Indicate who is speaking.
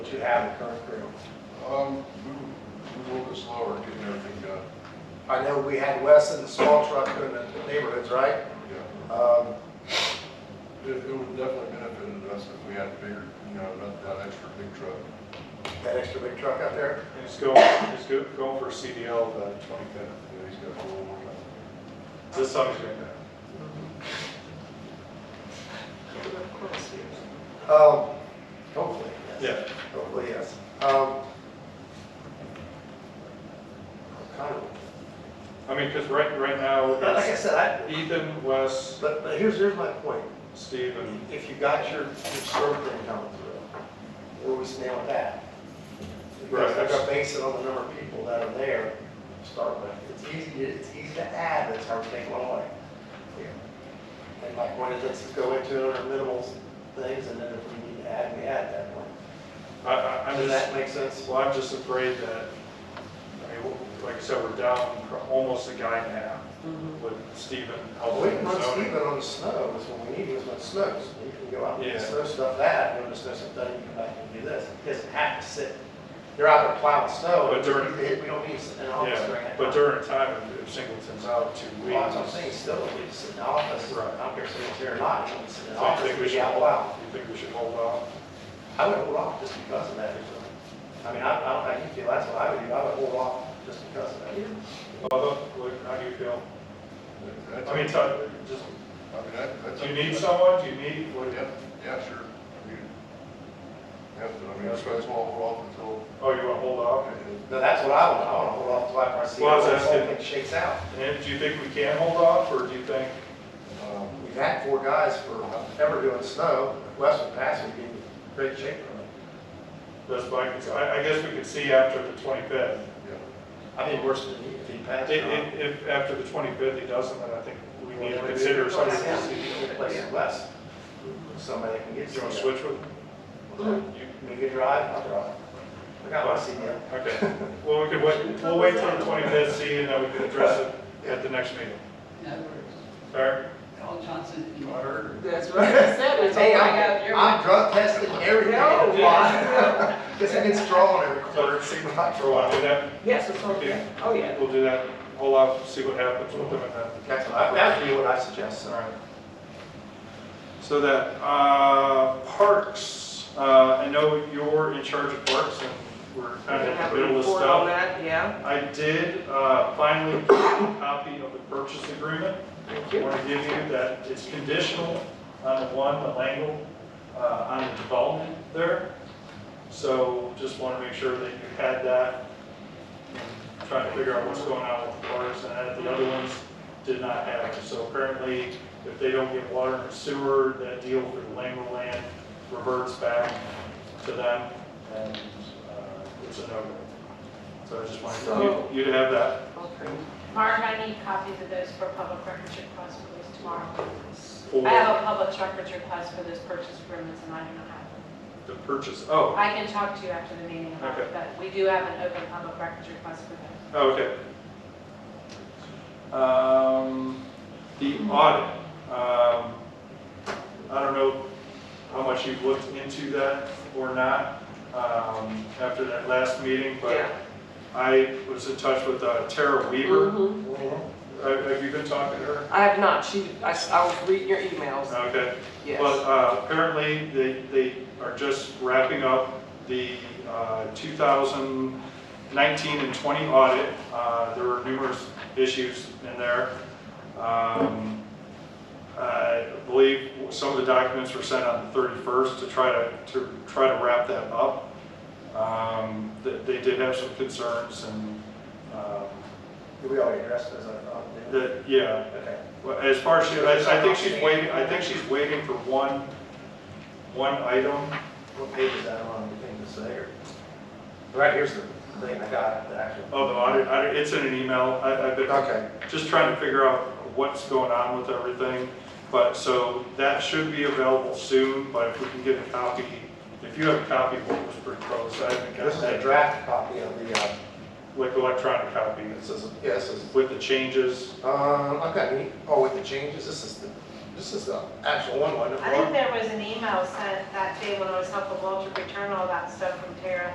Speaker 1: you have in current crew.
Speaker 2: Um, move, move a little bit slower, getting everything done,
Speaker 1: I know we had Wes in the small truck in the neighborhoods, right?
Speaker 2: yeah.
Speaker 1: Um,
Speaker 2: It, it would definitely benefited us if we had bigger, you know, not that extra big truck.
Speaker 1: That extra big truck out there.
Speaker 3: And it's going, it's go- going for CDL the twenty-fifth.
Speaker 2: You know, he's got a little more time.
Speaker 3: This summer's going to.
Speaker 1: Um, Hopefully, yes.
Speaker 3: Yeah.
Speaker 1: Hopefully, yes. Um, kind of-
Speaker 3: I mean, because right, right now,
Speaker 1: But Like I
Speaker 3: it's
Speaker 1: said, I,
Speaker 3: Ethan, Wes,
Speaker 1: but, but here's, here's my point.
Speaker 3: Steve, and
Speaker 1: If you got your, your serve green coming through, where we stand with that? Because
Speaker 3: Right.
Speaker 1: they're gonna base it on the number of people that are there to start with. It's easy, it's easy to add, that's how we take one away. And my point is, let's just go into it, our minimal things, and then if we need to add, we add that one.
Speaker 3: I, I, I'm
Speaker 1: Does
Speaker 3: just,
Speaker 1: that make sense?
Speaker 3: well, I'm just afraid that, I mean, w- like I said, we're down pro- almost a guy and a half
Speaker 1: Mm-hmm.
Speaker 3: with Steven
Speaker 1: We
Speaker 3: helping
Speaker 1: can
Speaker 3: with
Speaker 1: run Stephen
Speaker 3: zoning.
Speaker 1: on the snow, is when we need, is when it snows. You can go out and
Speaker 3: Yeah.
Speaker 1: snow stuff that, and when the snow stuff done, you come back and do this. He doesn't have to sit, they're out there plowing snow. and
Speaker 3: But during-
Speaker 1: We we don't need to sit in an office during that.
Speaker 3: Yeah,
Speaker 1: time.
Speaker 3: but during time, if- if Singleton's out two weeks.
Speaker 1: Well, that's what I'm saying, still, we just sit in the office,
Speaker 3: Right.
Speaker 1: I don't care if it's here or not, we sit in the
Speaker 3: I
Speaker 1: office,
Speaker 3: think
Speaker 1: we
Speaker 3: we should,
Speaker 1: out loud.
Speaker 3: you think we should hold off?
Speaker 1: I would hold off just because of that. reason. I mean, I, I don't, I feel that's what I would do, I would hold off just because of that.
Speaker 3: Bubba, what- how do you feel?
Speaker 2: That-
Speaker 3: I mean,
Speaker 2: that's-
Speaker 3: tell- just,
Speaker 2: I mean, that, that's.
Speaker 3: do you need someone? Do you need, what,
Speaker 2: Yeah, yeah, sure. I mean, Yeah, but I mean, that's why it's all off until,
Speaker 3: oh, you want to hold off?
Speaker 1: No, that's what I would, I want to hold off until after I see
Speaker 3: Well, I was
Speaker 1: how this whole
Speaker 3: asking-
Speaker 1: thing shakes out.
Speaker 3: And do you think we can hold off, or do you think?
Speaker 2: um,
Speaker 1: We've had four guys for ever doing snow, Western Pass would be in great shape for them.
Speaker 3: That's my concern. I, I guess we could see after the 25th.
Speaker 2: yeah.
Speaker 1: I mean, worse than he, if he
Speaker 3: If,
Speaker 1: passed. uh,
Speaker 3: if, if after the 25th he doesn't, then I think we need to consider something. Do
Speaker 1: Replace West, somebody that can get.
Speaker 3: you want to
Speaker 1: snow.
Speaker 3: switch with? You-
Speaker 1: We could drive, I'll drive. I got my CDL.
Speaker 3: Okay, well, we could wait, we'll wait till the 25th, see, and then we can address it at the next meeting. Fair?
Speaker 4: Al Johnson. and-
Speaker 5: That's what I said, it's all
Speaker 1: Hey,
Speaker 5: I got here.
Speaker 1: I'm, I'm drug testing everything.
Speaker 5: No, yeah.
Speaker 1: Because it gets drawn every quarter, it seems like for a
Speaker 3: We'll
Speaker 1: while.
Speaker 3: do that,
Speaker 5: Yes, it's all good. Oh, yeah.
Speaker 3: we'll do that, hold off, see what happens with them, and then
Speaker 1: That's what I, that'd be what I suggest,
Speaker 3: All
Speaker 1: sir.
Speaker 3: right. So that, uh, parks, uh, I know you're in charge of parks and we're
Speaker 5: We're
Speaker 3: kind
Speaker 5: gonna
Speaker 3: of
Speaker 5: have
Speaker 3: in
Speaker 5: a
Speaker 3: the middle of
Speaker 5: report
Speaker 3: stuff.
Speaker 5: on that, yeah.
Speaker 3: I did, uh, finally get a copy of the purchase agreement. I
Speaker 5: you.
Speaker 3: want to give you that it's conditional on the one, the Langle, uh, on the development there. So just want to make sure that you had that. and Trying to figure out what's going on with the parks and that. the other ones did not have it. So apparently, if they don't get water and sewer, that deal for the Langle land reverts back to them and, uh, it's a no-go. So I just wanted
Speaker 5: So-
Speaker 3: you- you to have that.
Speaker 5: Okay.
Speaker 6: Mark, I need copies of those for public records request, please, tomorrow.
Speaker 3: for-
Speaker 6: I have a public records request for those purchase agreements, and I do not have them.
Speaker 3: The purchase, oh,
Speaker 6: I can talk to you after the meeting about
Speaker 3: Okay.
Speaker 6: it, but we do have an open public records request for those.
Speaker 3: oh, okay. Um, the audit, um, I don't know how much you've looked into that or not, um, after that last meeting,
Speaker 5: Yeah.
Speaker 3: but I was in touch with uh, Tara Weaver.
Speaker 5: Mhm.
Speaker 3: Have have you been talking to her?
Speaker 5: I have not, she, I, s- I was reading your emails,
Speaker 3: Okay. But
Speaker 5: yes.
Speaker 3: uh, apparently, they, they are just wrapping up the uh, 2019 and 20 audit. Uh, There were numerous issues in there. Um, I believe some of the documents were sent on the 31st to try to, to try to wrap that up. Um, They they did have some concerns and, um,
Speaker 1: We already addressed those, I thought. didn't we?
Speaker 3: that- yeah,
Speaker 1: Okay.
Speaker 3: well, As far as, she- I I think she's waiting, I think she's waiting for one, one item.
Speaker 1: What page is that on, anything to say, or? Right, here's the thing, I got the actual.
Speaker 3: Oh, the audit, I- it's in an email, I- I've been
Speaker 1: Okay.
Speaker 3: just trying to figure out what's going on with everything. But, so that should be available soon, but if we can get a copy, if you have a copy of what was proposed, I haven't
Speaker 1: This
Speaker 3: got
Speaker 1: is a
Speaker 3: that,
Speaker 1: draft copy of the, uh,
Speaker 3: like electronic copy
Speaker 1: this is, yes, this is,
Speaker 3: with the changes.
Speaker 1: um, I've got, any- oh, with the changes, this is the This is the actual one, wasn't it?
Speaker 6: I think there was an email sent that day when I was helping Walter return all that stuff from Tara